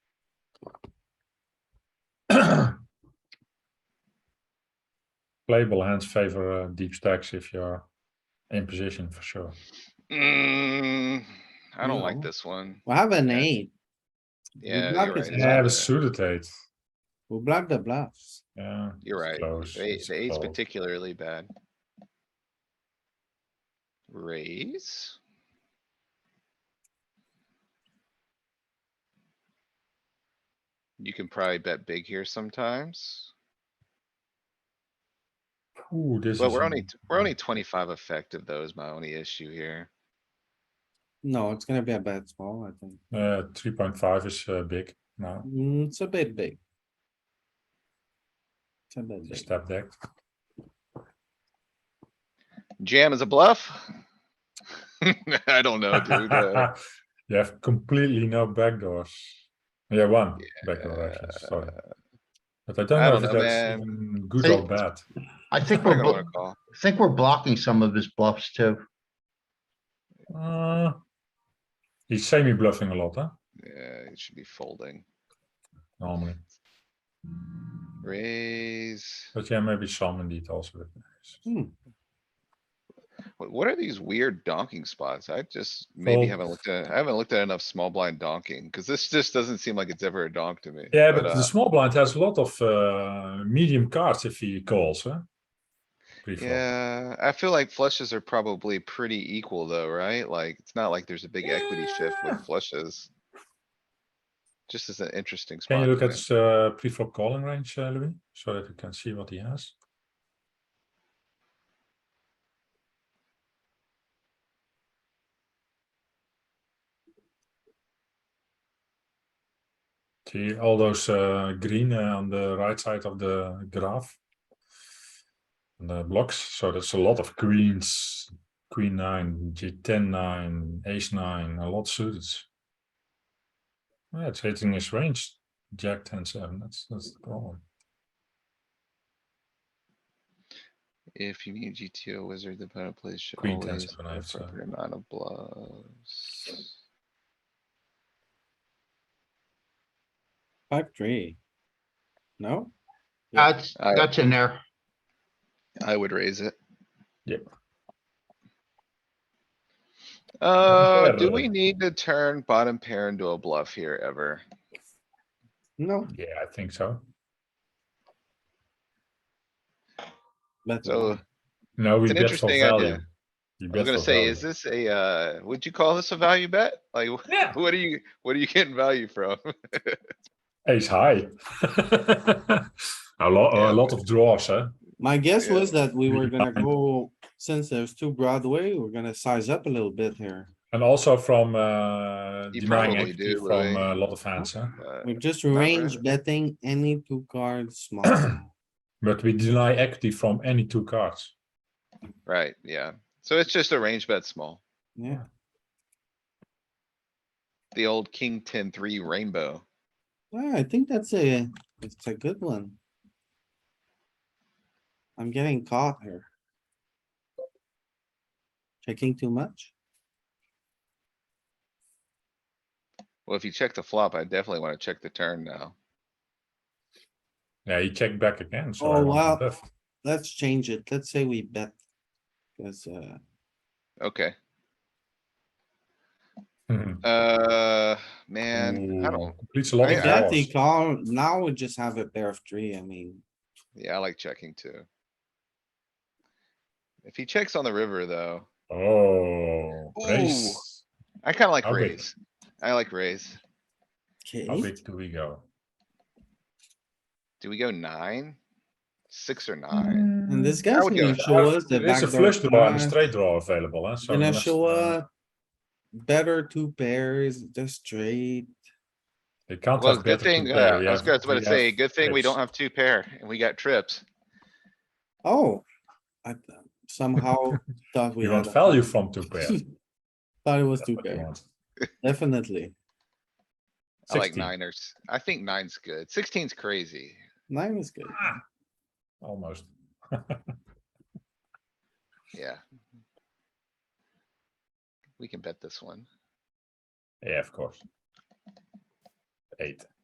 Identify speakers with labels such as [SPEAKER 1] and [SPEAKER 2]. [SPEAKER 1] playable hands favor uh, deep stacks if you're in position for sure.
[SPEAKER 2] Mm, I don't like
[SPEAKER 3] No.
[SPEAKER 2] this one.
[SPEAKER 3] We have an eight. We
[SPEAKER 2] Yeah,
[SPEAKER 3] block
[SPEAKER 2] you're
[SPEAKER 3] his
[SPEAKER 2] right.
[SPEAKER 3] hand.
[SPEAKER 1] Yeah, the suited eight.
[SPEAKER 3] We block the bluffs.
[SPEAKER 1] Yeah.
[SPEAKER 2] You're
[SPEAKER 1] it's
[SPEAKER 2] right.
[SPEAKER 1] close,
[SPEAKER 2] The eight,
[SPEAKER 1] it's
[SPEAKER 2] the eight's
[SPEAKER 1] close.
[SPEAKER 2] particularly bad. Raise? You can probably bet big here sometimes,
[SPEAKER 1] Ooh, this
[SPEAKER 2] but
[SPEAKER 1] is
[SPEAKER 2] we're
[SPEAKER 1] a-
[SPEAKER 2] only, we're only twenty-five effective though is my only issue here.
[SPEAKER 3] No, it's gonna be a bad small, I think.
[SPEAKER 1] Uh, three point five is uh, big now.
[SPEAKER 3] Mm, it's a bit big. It's a bit
[SPEAKER 1] The
[SPEAKER 3] big.
[SPEAKER 1] step deck.
[SPEAKER 2] Jam is a bluff? I don't know, dude. uh,
[SPEAKER 1] you have completely no backdoors. Yeah, one backdoor actually. Sorry, but I don't
[SPEAKER 2] I
[SPEAKER 1] know
[SPEAKER 2] don't
[SPEAKER 1] if
[SPEAKER 2] know,
[SPEAKER 1] that's
[SPEAKER 2] man.
[SPEAKER 1] even good
[SPEAKER 4] Hey.
[SPEAKER 1] or bad.
[SPEAKER 4] I think
[SPEAKER 2] I
[SPEAKER 4] we're,
[SPEAKER 2] don't
[SPEAKER 4] blo-
[SPEAKER 2] wanna call.
[SPEAKER 4] I think we're blocking some of his bluffs too.
[SPEAKER 1] Uh, he's semi bluffing a lot, huh?
[SPEAKER 2] Yeah, it should be folding.
[SPEAKER 1] Normally,
[SPEAKER 2] Raise.
[SPEAKER 1] but yeah, maybe some indeed also. with ace.
[SPEAKER 2] What, what are these weird donking spots? I just maybe
[SPEAKER 1] Fold.
[SPEAKER 2] haven't looked at, I haven't looked at enough small blind donking, cuz this just doesn't seem like it's ever a donk to me.
[SPEAKER 1] Yeah, but, the
[SPEAKER 2] uh,
[SPEAKER 1] small blind has a lot of uh, medium cards if he calls, huh? Pre-flop.
[SPEAKER 2] uh, Yeah, I feel like flushes are probably pretty equal though, right? Like, it's not like there's a big equity shift
[SPEAKER 1] Yeah.
[SPEAKER 2] with flushes. Just as an interesting spot.
[SPEAKER 1] Can you look
[SPEAKER 2] to
[SPEAKER 1] at
[SPEAKER 2] me.
[SPEAKER 1] his uh, pre-flop calling range, uh, Louis, so that you can see what he has? See all those uh, green uh, on the right side of the graph? And the blocks, so that's a lot of queens, queen nine, g ten nine, ace nine, a lot suited. Yeah, it's hitting his range. Jack ten seven. That's that's the problem.
[SPEAKER 2] If you need GTO wizard, the player plays should
[SPEAKER 1] Queen
[SPEAKER 2] always
[SPEAKER 1] ten seven,
[SPEAKER 2] have
[SPEAKER 1] I have, so-
[SPEAKER 2] appropriate amount of bluffs.
[SPEAKER 3] Five, three. No? Yeah.
[SPEAKER 4] That's,
[SPEAKER 2] I-
[SPEAKER 4] that's in there.
[SPEAKER 2] I would raise it.
[SPEAKER 1] Yep.
[SPEAKER 2] Uh, do
[SPEAKER 1] Better.
[SPEAKER 2] we need to turn bottom pair into a bluff here ever?
[SPEAKER 3] No,
[SPEAKER 1] Yeah, I think so.
[SPEAKER 3] that's
[SPEAKER 2] So,
[SPEAKER 3] all.
[SPEAKER 1] No, we
[SPEAKER 2] It's an
[SPEAKER 1] bet for
[SPEAKER 2] interesting idea.
[SPEAKER 1] value. You
[SPEAKER 2] I was
[SPEAKER 1] bet
[SPEAKER 2] gonna
[SPEAKER 1] for
[SPEAKER 2] say, is
[SPEAKER 1] value.
[SPEAKER 2] this a, uh, would you call this a value bet? Like, wh-
[SPEAKER 1] Yeah.
[SPEAKER 2] what are you, what are you getting value from?
[SPEAKER 1] ace high? a lot, a
[SPEAKER 2] Yeah,
[SPEAKER 1] lot of draws, eh? huh?
[SPEAKER 3] My guess
[SPEAKER 2] Yeah.
[SPEAKER 3] was that we were gonna
[SPEAKER 1] Behind.
[SPEAKER 3] go, since there's two Broadway, we're gonna size up a little bit here.
[SPEAKER 1] And also from uh,
[SPEAKER 2] You
[SPEAKER 1] denying
[SPEAKER 2] probably
[SPEAKER 1] equity
[SPEAKER 2] do,
[SPEAKER 1] from
[SPEAKER 2] Louis.
[SPEAKER 1] uh, a lot of hands, huh?
[SPEAKER 2] Uh,
[SPEAKER 3] We're just
[SPEAKER 2] really.
[SPEAKER 3] range betting any two cards small.
[SPEAKER 1] But we deny equity from any two cards.
[SPEAKER 2] Right, yeah. So it's just a range bet small.
[SPEAKER 3] Yeah,
[SPEAKER 2] The old king ten three rainbow.
[SPEAKER 3] Yeah, I think that's a, it's a good one. I'm getting caught here. Checking too much?
[SPEAKER 2] Well, if you check the flop, I definitely wanna check the turn now.
[SPEAKER 1] Yeah, he checked back again. So I
[SPEAKER 3] Oh,
[SPEAKER 1] want
[SPEAKER 3] wow.
[SPEAKER 1] to bluff.
[SPEAKER 3] Let's change it. Let's say we bet. Cause, uh,
[SPEAKER 2] Okay.
[SPEAKER 1] Mhm.
[SPEAKER 2] Uh, man, I
[SPEAKER 1] Ooh,
[SPEAKER 2] don't,
[SPEAKER 1] Completes a lot
[SPEAKER 2] I-
[SPEAKER 1] of
[SPEAKER 2] I
[SPEAKER 3] that
[SPEAKER 1] draws.
[SPEAKER 3] they call, now we just have a pair of three, I mean,
[SPEAKER 2] yeah, I like checking too. If he checks on the river though,
[SPEAKER 1] Oh, raise.
[SPEAKER 2] I kinda like
[SPEAKER 1] How big?
[SPEAKER 2] raise. I like raise.
[SPEAKER 1] How
[SPEAKER 3] okay,
[SPEAKER 1] big do we go?
[SPEAKER 2] Do we go nine? Six or nine?
[SPEAKER 3] and this guy's
[SPEAKER 2] would
[SPEAKER 3] gonna
[SPEAKER 2] go-
[SPEAKER 3] show us the
[SPEAKER 1] There is a
[SPEAKER 3] backdoor.
[SPEAKER 1] flush draw and a
[SPEAKER 3] flush.
[SPEAKER 1] straight draw available, huh? So
[SPEAKER 3] Gonna
[SPEAKER 1] that's,
[SPEAKER 3] show
[SPEAKER 1] uh,
[SPEAKER 3] up. Better two pairs, just straight.
[SPEAKER 1] They can't
[SPEAKER 2] Well,
[SPEAKER 1] have
[SPEAKER 2] good
[SPEAKER 1] better
[SPEAKER 2] thing,
[SPEAKER 1] two
[SPEAKER 2] uh,
[SPEAKER 1] pair.
[SPEAKER 2] I
[SPEAKER 1] We
[SPEAKER 2] was
[SPEAKER 1] have-
[SPEAKER 2] gonna- I was about
[SPEAKER 1] we
[SPEAKER 2] to say,
[SPEAKER 1] have
[SPEAKER 2] good thing we don't
[SPEAKER 1] trips.
[SPEAKER 2] have two pair and we got trips.
[SPEAKER 3] Oh. I th- somehow thought we
[SPEAKER 1] You
[SPEAKER 3] had.
[SPEAKER 1] want
[SPEAKER 3] a-
[SPEAKER 1] value from two pair.
[SPEAKER 3] Thought it was
[SPEAKER 1] That's
[SPEAKER 3] two
[SPEAKER 1] what you
[SPEAKER 3] pair,
[SPEAKER 1] want.
[SPEAKER 3] definitely.
[SPEAKER 2] I like
[SPEAKER 1] 16.
[SPEAKER 2] niners. I think nine's good. Sixteen's crazy.
[SPEAKER 3] Nine is good.
[SPEAKER 1] Ah, Almost.
[SPEAKER 2] Yeah. We can bet this one.
[SPEAKER 1] Yeah, of course. Eight.